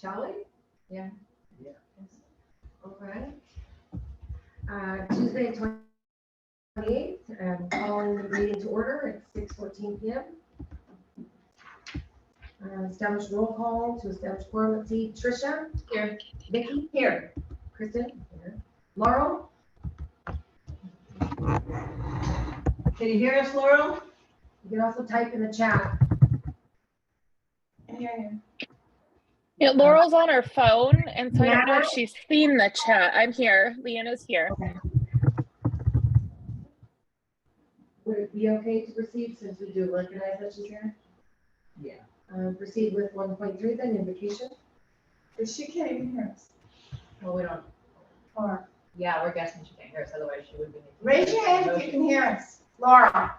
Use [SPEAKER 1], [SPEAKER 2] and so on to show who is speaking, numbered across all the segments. [SPEAKER 1] Shall we? Yeah.
[SPEAKER 2] Yeah.
[SPEAKER 1] All right. Uh, Tuesday, twenty-eighth, um, calling the meeting to order at six fourteen P M. Uh, establish roll call to establish quorum, let's see, Tricia? Here. Vicky? Here. Kristen? Here. Laurel?
[SPEAKER 3] Can you hear us, Laurel?
[SPEAKER 1] You can also type in the chat.
[SPEAKER 3] I hear you.
[SPEAKER 4] Yeah, Laurel's on her phone, and so I don't know if
[SPEAKER 1] Now?
[SPEAKER 4] she's seen the chat. I'm here. Leanna's here.
[SPEAKER 1] Would it be okay to proceed since we do recognize that she's here?
[SPEAKER 2] Yeah.
[SPEAKER 1] Uh, proceed with one point three then, invocation?
[SPEAKER 3] But she can't even hear us.
[SPEAKER 5] Well, we don't,
[SPEAKER 3] Or,
[SPEAKER 5] yeah, we're guessing she can't hear us, otherwise she would be.
[SPEAKER 3] raise your hand if you can hear us. Laura.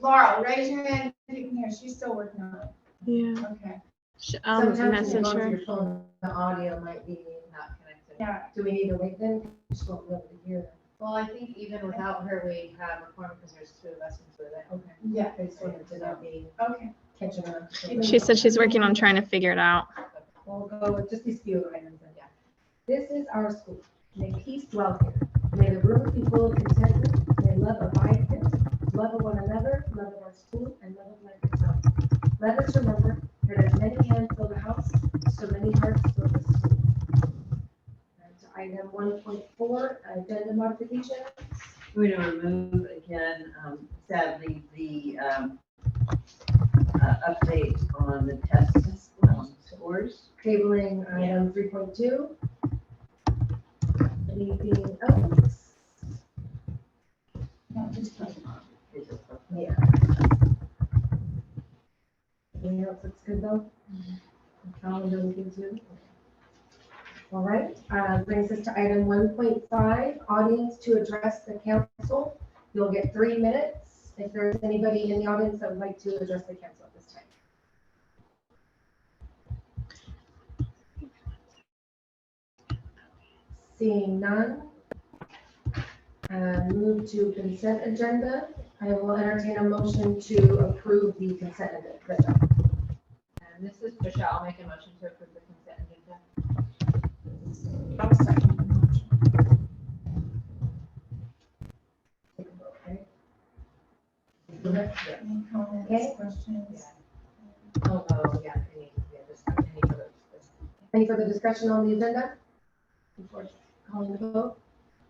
[SPEAKER 3] Laura, raise your hand if you can hear. She's still working on it.
[SPEAKER 6] Yeah,
[SPEAKER 3] Okay.
[SPEAKER 6] sh- um,
[SPEAKER 1] Sometimes when
[SPEAKER 6] message
[SPEAKER 1] you go to
[SPEAKER 6] her.
[SPEAKER 1] your phone, the audio might be not connected.
[SPEAKER 3] Yeah.
[SPEAKER 1] Do we need to wait then? Just won't be able to hear them.
[SPEAKER 5] Well, I think even without her, we have a forum because there's two of us and two of them.
[SPEAKER 1] Okay.
[SPEAKER 3] Yeah.
[SPEAKER 1] I just wanted to not be
[SPEAKER 3] Okay.
[SPEAKER 1] catching up.
[SPEAKER 6] She said she's working on trying to figure it out.
[SPEAKER 1] We'll go with just these few items then, yeah. This is our school. May peace dwell here. May the rooms be full of contentment. May love abide here. Love of one another, love of our school, and love of life itself. Let us remember that as many hands fill the house, so many hearts fill the school. And to Item one point four, agenda modification.
[SPEAKER 2] We're going to remove again, um, sadly, the um, uh, update on the test um, scores.
[SPEAKER 1] Tabling item three point two. Anything else?
[SPEAKER 3] No, just close it.
[SPEAKER 2] Is it-
[SPEAKER 1] Yeah. Anything else that's good though? Calendar looking too. All right, uh, brings us to item one point five, audience to address the council. You'll get three minutes if there's anybody in the audience that would like to address the council at this time. Seeing none. Uh, move to consent agenda. I will entertain a motion to approve the consent agenda.
[SPEAKER 5] And this is Tricia, I'll make a motion to approve the consent agenda.
[SPEAKER 3] I'll second the motion.
[SPEAKER 1] Take a vote, okay?
[SPEAKER 3] Any comments,
[SPEAKER 1] Okay.
[SPEAKER 3] questions?
[SPEAKER 5] Oh, oh, yeah, any, yeah, just any other.
[SPEAKER 1] Any further discussion on the agenda? Before calling the vote.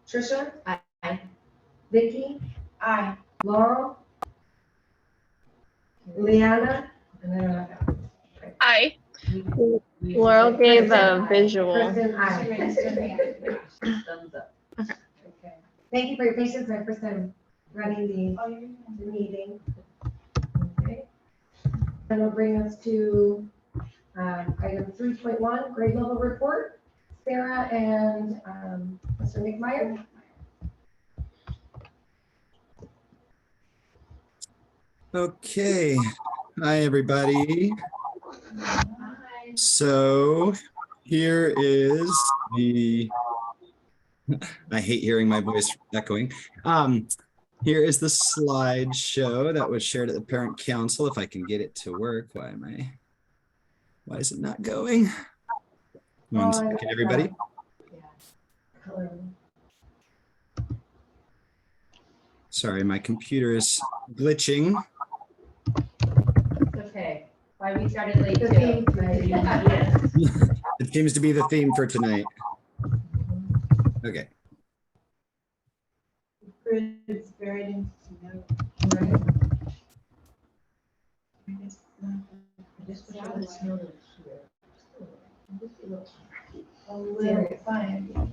[SPEAKER 1] Tricia?
[SPEAKER 5] Aye.
[SPEAKER 1] Vicky?
[SPEAKER 3] Aye.
[SPEAKER 1] Laurel? Leanna? And then I'm out.
[SPEAKER 4] Hi.
[SPEAKER 6] Laurel gave a visual.
[SPEAKER 1] Kristen, aye.
[SPEAKER 3] She raised her hand.
[SPEAKER 2] Thumbs up.
[SPEAKER 1] Okay. Thank you for your patience. My first time running the
[SPEAKER 3] Oh, you're fine.
[SPEAKER 1] the meeting. Okay. That'll bring us to um, item three point one, grade level report. Sarah and um, Mr. McMyer.
[SPEAKER 7] Okay, hi, everybody.
[SPEAKER 5] Aye.
[SPEAKER 7] So here is the, I hate hearing my voice echoing. Um, here is the slideshow that was shared at the parent council. If I can get it to work, why am I? Why is it not going? One second, everybody. Sorry, my computer is glitching.
[SPEAKER 5] It's okay, why we started late
[SPEAKER 1] The
[SPEAKER 5] too.
[SPEAKER 1] theme tonight.
[SPEAKER 5] Yes.
[SPEAKER 7] It seems to be the theme for tonight. Okay.
[SPEAKER 3] It's buried in.
[SPEAKER 1] Right.
[SPEAKER 3] uh,
[SPEAKER 5] Just put it on the snow here.
[SPEAKER 3] A little fine.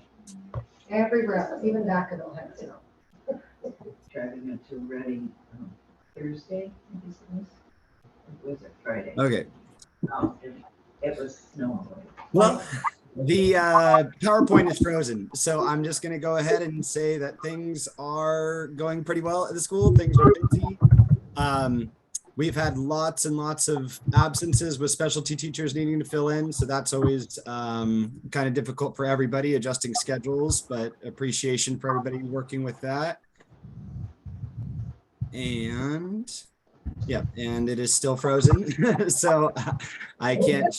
[SPEAKER 1] Everywhere else, even Vacaville has snow.
[SPEAKER 2] Driving up to Reading um, Thursday, I guess it was. Or Was it Friday?
[SPEAKER 7] Okay.
[SPEAKER 2] Um, and It was snowing.
[SPEAKER 7] Well, the uh, PowerPoint is frozen, so I'm just going to go ahead and say that things are going pretty well at the school. Things are busy. Um, we've had lots and lots of absences with specialty teachers needing to fill in, so that's always um, kind of difficult for everybody adjusting schedules. But appreciation for everybody working with that. And yeah, and it is still frozen, so I can't